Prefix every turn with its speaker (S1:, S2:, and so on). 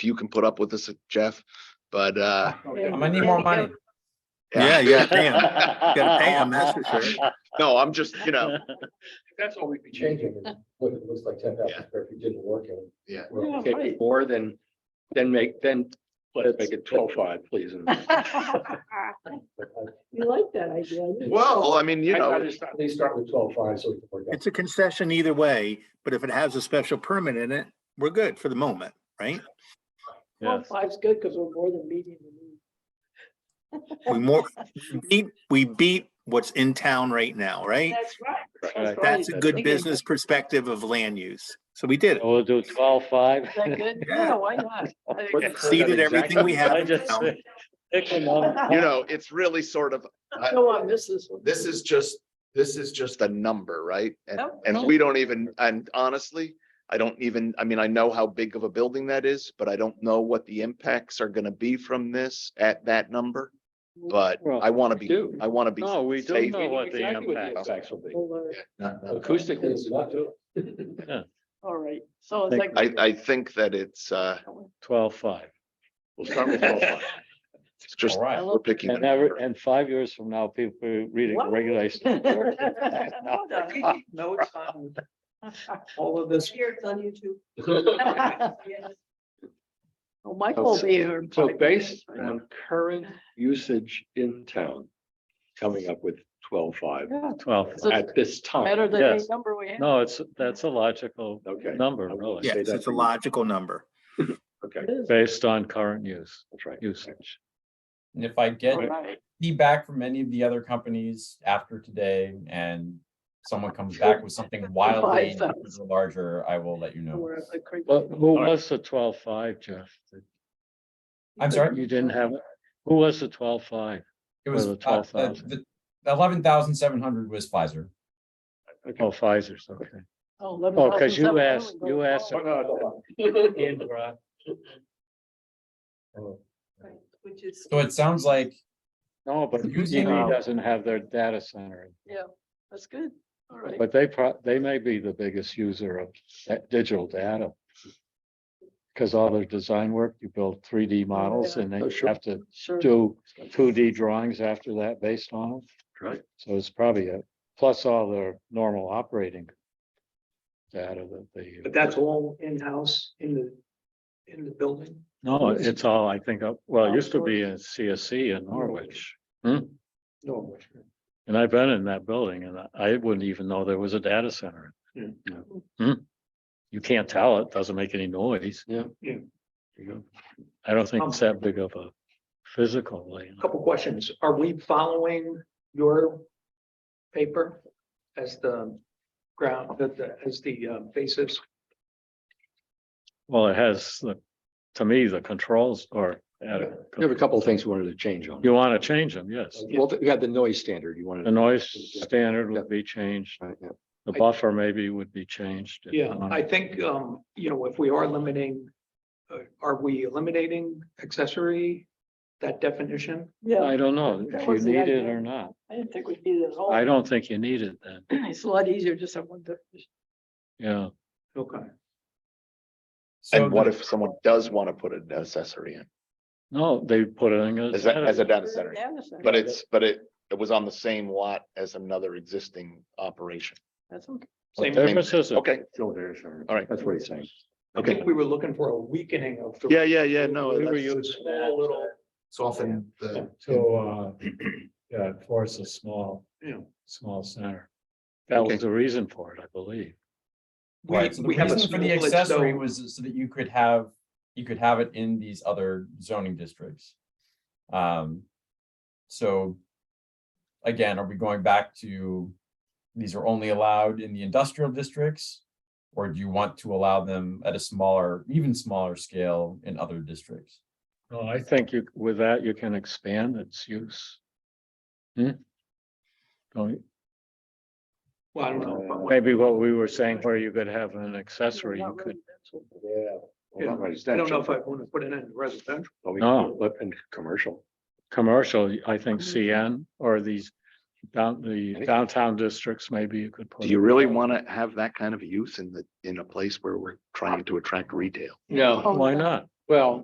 S1: you can put up with this, Jeff, but, uh.
S2: I'm
S3: gonna need more money.
S1: Oh,
S4: Yeah, yeah, damn. Gotta pay 'em, that's for sure.
S1: No, I'm just, you know,
S2: That's all we'd be changing, is what it looks like ten
S1: Yeah.
S2: thousand square feet didn't work and.
S1: Yeah.
S2: we're
S3: Yeah,
S2: okay
S3: right.
S2: More than, then make, then let's make it twelve five, please. and-
S3: You like that idea. I do.
S1: well, I mean, you
S2: I'd
S1: know,
S2: rather start- At least start with twelve five, so we can work out.
S4: It's a concession either way, but if it has a special permit in it, we're good for the moment, right?
S3: Well, Five's good because we're more than meeting the need.
S4: We more, we beat, we beat what's in town right now, right?
S3: That's right.
S5: Right.
S3: right.
S4: Uh, That's a good
S3: Thinking-
S4: business perspective of land use. So we did it.
S5: We'll do twelve five.
S3: Is that good?
S4: Yeah.
S3: Yeah, why not? I think
S2: What-
S3: that's-
S4: Exceeded everything we have
S5: I
S4: in
S5: just
S4: town.
S1: you know, it's really sort of, I-
S3: Go on, miss this one.
S1: this is just, this is just a number, right? And,
S3: Nope.
S1: and we don't even, and honestly, I don't even, I mean, I know how big of a building that is, but I don't know what the impacts are gonna be from this at that number. But
S5: Well,
S1: I wanna be,
S5: do.
S1: I wanna be.
S5: No, we don't
S1: safe.
S5: know what the
S2: Exactly what the
S5: impact.
S2: Impacts will be.
S3: We'll learn.
S1: Not- not-
S2: Acoustically, it's not too.
S3: All right, so it's like.
S1: I, I think that it's, uh,
S5: Twelve five.
S2: We'll start with twelve five.
S1: it's just,
S2: All right.
S1: we're picking. a
S5: And ever,
S1: number.
S5: and five years from now, people are reading
S3: What?
S5: regulations.
S3: Well done.
S2: No, it's fine. All of this.
S3: Here, it's on YouTube.
S2: So
S3: Well, Michael will be here. in five
S2: based
S3: minutes.
S2: on current usage in town, coming up with twelve five
S3: Yeah,
S5: Twelve.
S3: So-
S2: at this time.
S3: Better than any
S5: Oh, Yes.
S3: number we have.
S5: No, it's, that's a logical
S2: Okay.
S5: number,
S2: Okay.
S5: really,
S2: Yeah.
S4: Yes, it's a logical number.
S2: Okay,
S3: It is.
S5: based on current use,
S2: that's right.
S5: usage.
S6: And if I get
S3: All right.
S6: feedback from any of the other companies after today and someone comes back with something wildly
S3: thousand.
S6: larger, I will let you know.
S3: We're at the creek.
S5: But who
S2: All right.
S5: was the twelve five, Jeff?
S6: I'm sorry,
S5: You didn't have, who was the twelve five?
S6: it was,
S5: Or
S6: uh,
S5: the
S6: uh,
S5: 12,000.
S6: the eleven thousand seven hundred was Pfizer.
S5: Oh, Pfizer's, okay.
S3: Oh, 11,700
S5: Oh, because you
S3: we
S5: asked,
S3: go
S5: you asked.
S3: forward,
S5: uh,
S1: Oh.
S3: Which is,
S6: So it sounds like
S5: No, but
S6: Using-
S5: UTV doesn't have their data center,
S3: yeah, that's good. All right.
S5: but they pro, they may be the biggest user of that digital data. Because all their design work, you build three D models
S3: yeah.
S5: and
S2: Oh,
S5: they
S2: sure.
S5: have to
S3: Sure.
S5: do two D drawings after that based on them.
S2: Right.
S5: So it's probably a, plus all their normal operating data that they. use.
S7: But that's all in-house in the, in the building?
S5: No, it's all, I think, up- well, it used to be in CSC in Norwich. Hmm.
S7: No.
S5: And I've been in that building and I- I wouldn't even know there was a data center.
S2: Yeah.
S5: Yeah. Hmm. You can't tell, it doesn't make any noise.
S2: Yeah.
S7: Yeah.
S5: You know, I don't think it's that big of a physical. you know.
S7: Couple questions. Are we following your paper as the ground, that the- as the uh, basis?
S5: Well, it has, the to me, the controls are at a,
S2: We have a couple of things we wanted to change on.
S5: you want to change them, yes.
S2: Well, we had the noise standard you wanted.
S5: The noise standard would be changed,
S2: Right, yeah.
S5: the buffer maybe would be changed. if
S7: Yeah,
S5: not.
S7: I
S2: uh,
S7: think, um, you know, if we are limiting, uh, are we eliminating accessory, that definition?
S3: Yeah,
S5: I don't know if
S3: That
S5: you
S3: was the
S5: need it
S3: idea.
S5: or not.
S3: I didn't think we needed it at all.
S5: I don't think you need it then,
S3: It's a lot easier just on one definition.
S5: yeah.
S7: Okay.
S6: so
S1: And what
S6: the-
S1: if someone does wanna put an accessory in,
S5: No, they put it in.
S1: as a, as a data
S3: It's
S1: center?
S3: data center,
S1: But it's, but it, it was on the same lot as another existing operation.
S3: That's okay.
S5: What
S7: Same
S5: difference is it?
S1: Okay,
S2: Still there, sure.
S1: All right.
S2: That's what he's saying.
S7: I think we were looking for a weakening of. the-
S1: yeah, yeah, yeah, no.
S7: We were
S1: that's-
S7: using that, little-
S1: soften the.
S5: So, uh, yeah, force a small,
S7: Yeah.
S5: small center. That
S1: Okay.
S5: was the reason for it, I believe.
S7: We,
S6: Right, so the
S7: we have a
S6: reason for the
S7: split,
S6: accessory
S7: so,
S6: was so that you could have, you could have it in these other zoning districts. Um, so. Again, are we going back to, these are only allowed in the industrial districts? Or do you want to allow them at a smaller, even smaller scale in other districts?
S5: No, I think you, with that, you can expand its use. Hmm? Don't you-
S7: well, I don't know. but what-
S5: Maybe what we were saying, where you could have an accessory,
S3: Not
S5: you could,
S3: residential.
S2: Yeah.
S7: Yeah. I don't know if I want to put it in residential.
S5: No.
S2: And commercial.
S5: commercial, I think
S3: Mhm.
S5: CN or these down, the
S2: think-
S5: downtown districts, maybe you could. put
S1: Do you
S5: it.
S1: really wanna have that kind of use in the, in a place where we're trying to attract retail?
S2: No.
S3: Oh,
S5: Why
S3: yeah.
S5: not?
S7: Well,